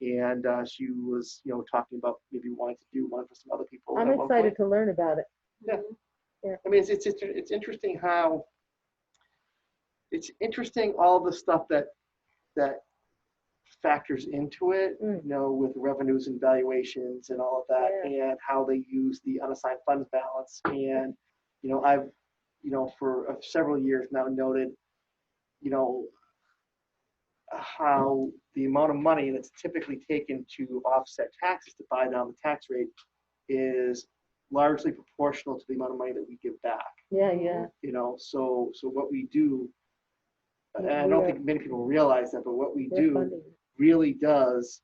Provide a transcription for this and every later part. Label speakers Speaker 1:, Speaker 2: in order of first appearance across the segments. Speaker 1: And uh, she was, you know, talking about maybe wanting to do one for some other people.
Speaker 2: I'm
Speaker 1: at one point.
Speaker 2: excited to learn about it.
Speaker 1: I mean, it's, it's, it's, it's interesting how, it's interesting all the stuff that, that factors into it, you
Speaker 2: Mm.
Speaker 1: know, with revenues and valuations and all of that, and how they use the unassigned funds balance. And, you know, I've, you know, for uh, several years now noted, you know, how the amount of money that's typically taken to offset taxes to buy down the tax rate is largely proportional to the amount of money that we give back.
Speaker 2: Yeah,
Speaker 1: Mm-hmm.
Speaker 2: yeah.
Speaker 1: You know, so so what we do, and I
Speaker 2: Yeah.
Speaker 1: don't think many people realize that, but what we
Speaker 2: We're
Speaker 1: do
Speaker 2: funding.
Speaker 1: really does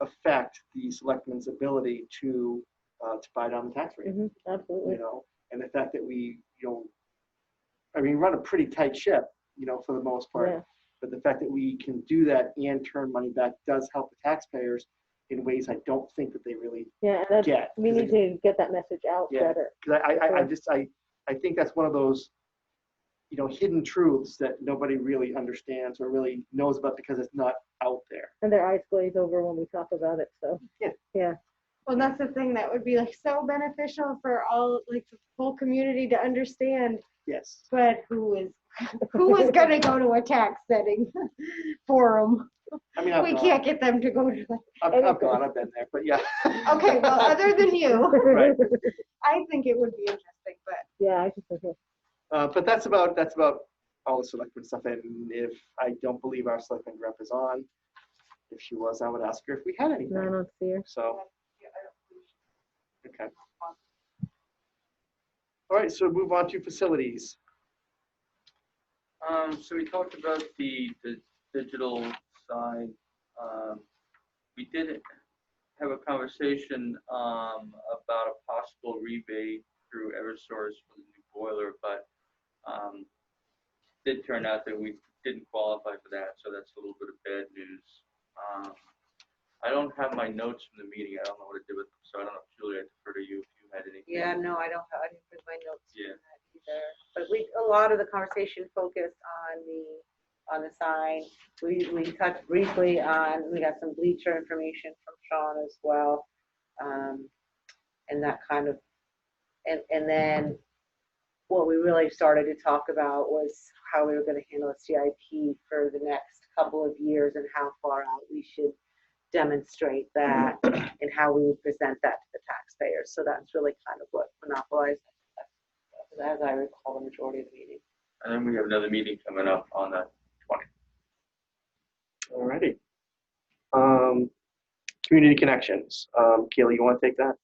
Speaker 1: affect the selectmen's ability to uh, to buy down the tax rate.
Speaker 2: Mhm, Absolutely.
Speaker 1: You know, and the fact that we, you know, I mean, run a pretty tight ship, you know, for the most part.
Speaker 2: Yeah.
Speaker 1: But the fact that we can do that and turn money back does help the taxpayers in ways I don't think that they really
Speaker 2: Yeah, and that's,
Speaker 1: get.
Speaker 2: we
Speaker 1: 'cause
Speaker 2: need
Speaker 1: it-
Speaker 2: to get that message out
Speaker 1: Yeah.
Speaker 2: better.
Speaker 1: because I, I, I
Speaker 2: Sure.
Speaker 1: just, I, I think that's one of those, you know, hidden truths that nobody really understands or really knows about because it's not out there.
Speaker 2: And their eyes glaze over when we talk about it, so.
Speaker 3: Well, that's the thing that would be like so beneficial for all, like the whole community to understand,
Speaker 1: Yes.
Speaker 3: but who is, who is gonna go to a tax setting forum?
Speaker 1: I mean, I've
Speaker 3: We
Speaker 1: gone,
Speaker 3: can't get them to go to, the-
Speaker 1: I've,
Speaker 2: anything.
Speaker 1: I've gone, I've been there, but yeah.
Speaker 3: okay, well, other than you,
Speaker 1: Right.
Speaker 3: I think it would be interesting, but
Speaker 2: Yeah, I just, okay.
Speaker 1: Uh, but that's about, that's about all the selectmen stuff. And if I don't believe our selectman rep is on, if she was, I would ask her if we had
Speaker 2: no, I
Speaker 1: anything.
Speaker 2: don't see her.
Speaker 1: So, okay. All right, so move on to facilities.
Speaker 4: Um, so we talked about the, the digital side. Um, we did have a conversation, um, about a possible rebate through Eversource for the new boiler, but, um, did turn out that we didn't qualify for that, so that's a little bit of bad news. Um, I don't have my notes from the meeting. I don't know what to do with them, so I don't know, Julie, I defer to you if you had anything.
Speaker 5: Yeah, no, I don't have, I didn't bring my notes
Speaker 4: Yeah.
Speaker 5: from that either. But we, a lot of the conversation focused on the, on the sign. We, we touched briefly on, we got some bleacher information from Sean as well. um, And that kind of, and, and then what we really started to talk about was how we were gonna handle a CIP for the next couple of years and how far out we should demonstrate that and how we would present that to the taxpayers. So that's really kind of what monopolized, as I recall, the majority of the meeting.
Speaker 4: And then we have another meeting coming up on the
Speaker 1: Alrighty. Um, community connections. Um, Kayla, you want to take that?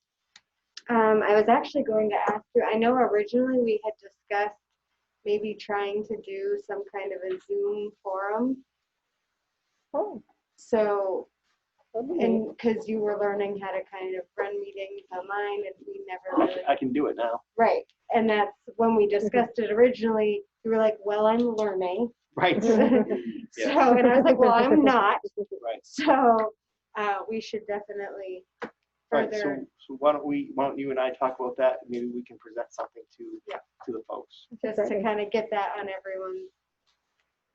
Speaker 3: Um, I was actually going to ask you, I know originally we had discussed maybe trying to do some kind of a Zoom forum.
Speaker 2: Oh,
Speaker 3: So,
Speaker 2: that'd be neat.
Speaker 3: and because you were learning how to kind of run meetings online and we never really,
Speaker 1: I can do it now.
Speaker 3: right. And that's when we discussed it originally, you were like, well, I'm learning.
Speaker 1: Right. Yeah.
Speaker 3: So, and I was like, well, I'm not.
Speaker 1: Right.
Speaker 3: So, uh, we should definitely
Speaker 1: Right, so,
Speaker 3: further
Speaker 1: so why don't we, why don't you and I talk about that, and maybe we can present something to,
Speaker 3: Yeah.
Speaker 1: to the folks.
Speaker 3: just to kind of get that on everyone's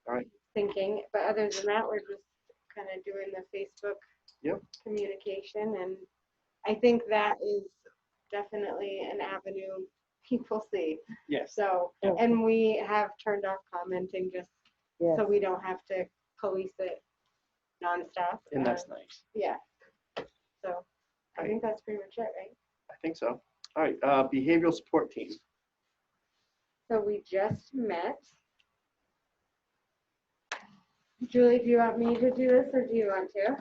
Speaker 1: Alright.
Speaker 3: thinking. But other than that, we're just kind of doing the Facebook
Speaker 1: Yep.
Speaker 3: communication, and I think that is definitely an avenue people see.
Speaker 1: Yes,
Speaker 3: So,
Speaker 2: Yeah.
Speaker 3: and we have turned off commenting just
Speaker 2: Yeah.
Speaker 3: so we don't have to police it nonstop.
Speaker 1: and that's
Speaker 3: Uh,
Speaker 1: nice,
Speaker 3: yeah. So I think that's pretty much it, right?
Speaker 1: I think so. All right, uh, behavioral support team,
Speaker 3: So we just met. Julie, do you want me to do this or do you want to?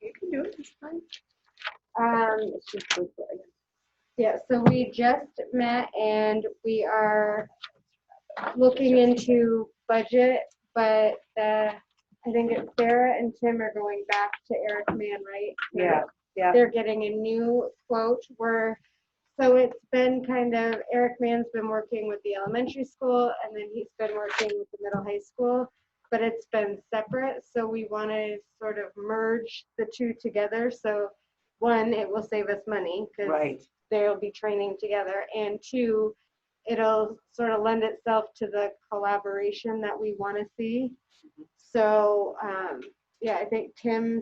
Speaker 5: You can do it this time.
Speaker 3: Um,
Speaker 5: It's just so good.
Speaker 3: yeah, so we just met and we are looking into budget, but the, I think it's Sarah and Tim are going back to Eric Mann, right?
Speaker 5: Yeah, yeah.
Speaker 3: They're getting a new quote where, so it's been kind of, Eric Mann's been working with the elementary school and then he's been working with the middle high school, but it's been separate, so we want to sort of merge the two together, so one, it will save us money, because
Speaker 5: Right.
Speaker 3: they'll be training together, and two, it'll sort of lend itself to the collaboration that we want to see. So, um, yeah, I think Tim